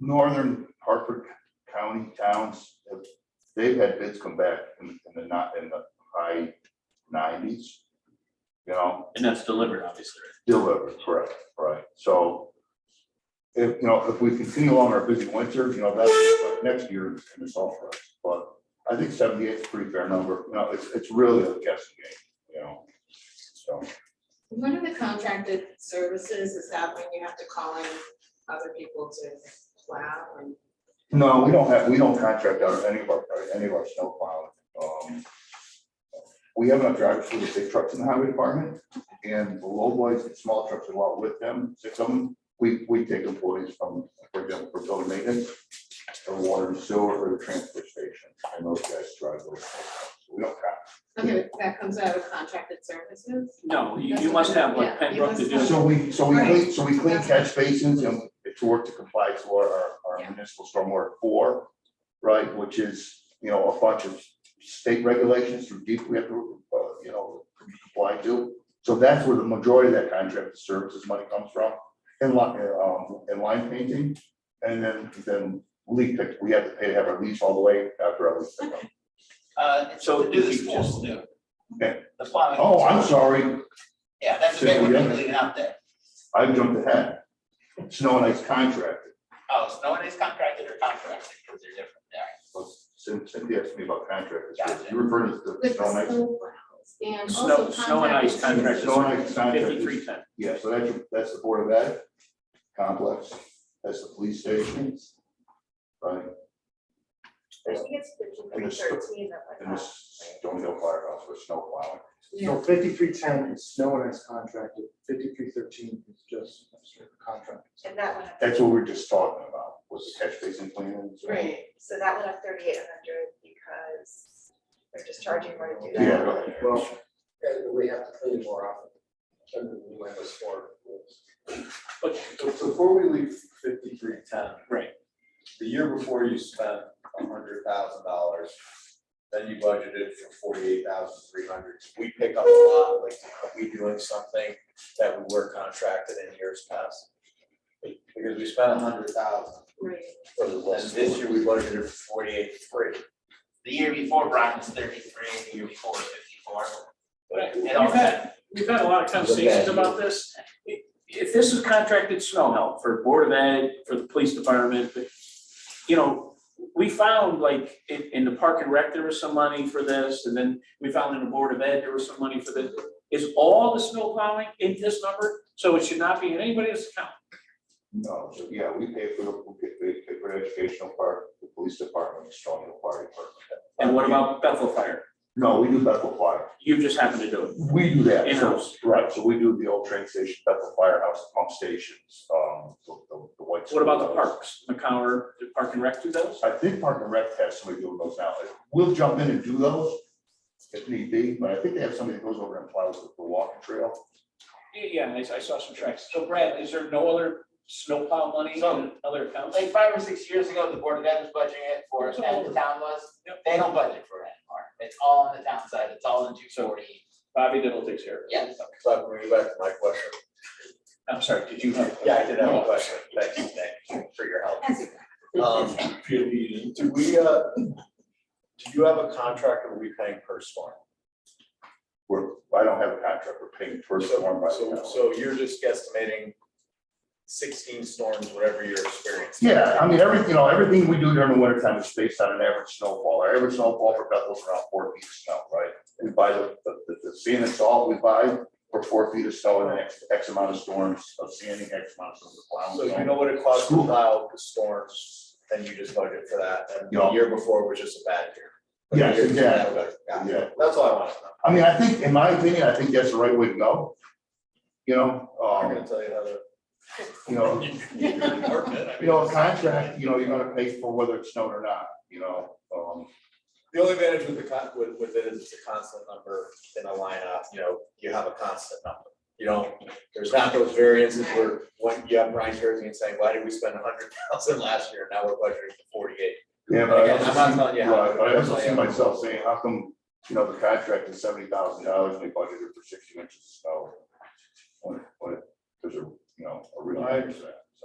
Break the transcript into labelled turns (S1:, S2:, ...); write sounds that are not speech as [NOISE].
S1: northern Hartford County towns, have- they've had bids come back in in the not, in the high nineties. You know,
S2: And that's delivered, obviously.
S1: delivered, correct, right, so. If, you know, if we continue on our busy winter, you know, that's like next year and it's all for us, but I think seventy-eight is a pretty fair number, you know, it's, it's really a guessing game, you know. So,
S3: One of the contracted services is that when you have to call in other people to plow and
S1: no, we don't have, we don't contract out any of our, any of our snow plowing, um. We have enough drivers for the big trucks in the highway department, and the low boys and small trucks are along with them, six of them. We, we take employees from, for example, for building maintenance, or water and sewer, or the transfer station, and those guys drive those. We don't have,
S3: okay, that comes out of contracted services?
S2: No, you, you must have like
S3: Yeah, you
S2: Pembroke to
S3: must
S2: do.
S3: have-
S1: so we, so we clean, so we clean
S3: Right.
S1: catch basins and to work to comply to our, our
S3: Yeah.
S1: municipal stormwater four. Right, which is, you know, a bunch of state regulations through deep, we have to, uh, you know, comply to. So that's where the majority of that contract services money comes from, in line, um, in line painting. And then, then leak pick, we have to pay to have our lease all the way after our lease. pickup.
S4: Uh,
S2: So
S4: so do this
S2: you could just-
S4: full, do.
S1: Okay.
S4: The plowing.
S1: Oh, I'm sorry,
S4: Yeah, that's okay, we're gonna leave it out there.
S1: I jumped ahead. Snow and ice contract.
S4: Oh, so no one is contracted or contracted, because they're different, all
S1: Well, Cyn- Cynthia asked me E about contractors,
S4: Gotcha.
S1: you referred to the
S3: With
S1: snow and
S3: the
S1: ice.
S3: snow plows and
S2: Snow,
S3: also
S2: snow and ice contract
S3: contracted services.
S1: Snow and ice
S2: is
S1: contract is-
S2: fifty-three ten.
S1: Yeah, so that's, your- that's the Board of Ed complex, that's the police station. Right,
S5: I think it's fifteen
S1: And
S5: through
S1: it's the-
S5: thirteen that went
S1: and
S5: up.
S1: this Stony Hill Firehouse for snow plowing.
S3: Yeah,
S6: So fifty-three ten is snow and ice contracted, fifty-three thirteen is just contract.
S5: And that went up,
S1: That's what we were just talking about, was the catch basin plan.
S3: right,
S5: so that went up thirty-eight hundred because they're just charging more to do that.
S1: Yeah, right.
S7: Well, and we have to clean more often. And we might have sworn.
S2: But-
S7: So before we leave fifty-three ten.
S2: Right.
S7: The year before you spent a hundred thousand dollars, then you budgeted for forty-eight thousand three hundred. We pick up a lot, like, are we doing something that we were contracted in years past? Because we spent a hundred thousand,
S3: right.
S7: and this year we budgeted for forty-eight three.
S4: The year before, Brian was thirty-three, the year before was fifty-four.
S2: But
S4: It
S2: we've
S4: all
S2: had, we've had a lot of conversations about this. If- If this is contracted snow help for Board of Ed, for the police department, but, you know, we found like in, in the Park and Rec, there was some money for this, and then we found in the Board of Ed, there was some money for this. Is all the snow plowing in this number? So it should not be in anybody's account.
S1: No, so, yeah, we pay for the, we pay- we pay for the educational part, the police department, Stony Hill Fire Department.
S2: And what about Bethel Fire?
S1: No, we do Bethel Fire,
S2: You just happen to do it.
S1: we do that. so-
S2: In-house.
S1: Right, so we do the old train station, Bethel Firehouse, pump stations, um, the, the- the white.
S2: What about the
S1: park?
S2: parks? McCower, the Park and Rec do those?
S1: I think Park and Rec has somebody doing those now. We'll jump in and do those if need be, but I think they have somebody that goes over and plows the the walking trail.
S2: Yeah, Yeah, and I, I saw some tracks. So Brad, is there no other snowplow money in
S4: So-
S2: other accounts?
S4: Like five or six years ago, the Board of Ed was budgeting it for us, and the town was,
S2: Yep.
S4: they don't budget for it anymore. It's all on the town side, it's all in two forty.
S2: Bobby Diddle takes care of it.
S4: Yes,
S7: So I'm bringing back to my question.
S2: I'm sorry, did you have?
S7: Yeah, I did have a question. Thanks, Nick, for your help.
S3: That's it. [LAUGHS]
S7: Um, do we, uh, do you have a contract or are we paying per storm?
S1: We're, I don't have a contract, we're paying per storm
S2: Oh.
S1: by the
S7: So,
S1: hour.
S7: so you're just guesstimating sixteen storms, whatever you're experiencing.
S1: Yeah, I mean, everything, you know, everything we do during the winter time is based on an average snowfall. Our average snowfall for Bethel is around four feet of snow, right? We buy the, the, the- the sand and salt we buy for four feet of snow and then X, X amount of storms of sanding, X amount of storms of plowing.
S7: So you know what it costs to plow the storms, then you just budget for that, and the
S1: Yeah.
S7: year before was just a bad year. But the
S1: Yes,
S7: year before that
S1: exactly.
S7: was better.
S1: Yeah.
S7: Yeah, that's all I want to know.
S1: I mean, I think, in my opinion, I think that's the right way to go. You know,
S7: I'm
S1: um,
S7: gonna tell you how to.
S1: you know, you
S7: You
S1: know, a contract, you know, you're gonna pay for whether it snowed or not, you know, um,
S7: The only advantage with the con, with, with it is it's a constant number in a lineup, you know, you have a constant number. You don't, there's not those variances where, when you have Ryan Jersey and saying, why did we spend a hundred thousand last year, now we're budgeting for forty-eight?
S1: yeah, but I
S7: Again, I'm not telling
S1: also see,
S7: you how.
S1: right, but I also see myself saying, how come, you know, the contract is seventy thousand dollars, and they budgeted for sixty inches of snow? What, what, there's a, you know, a real. reason for that.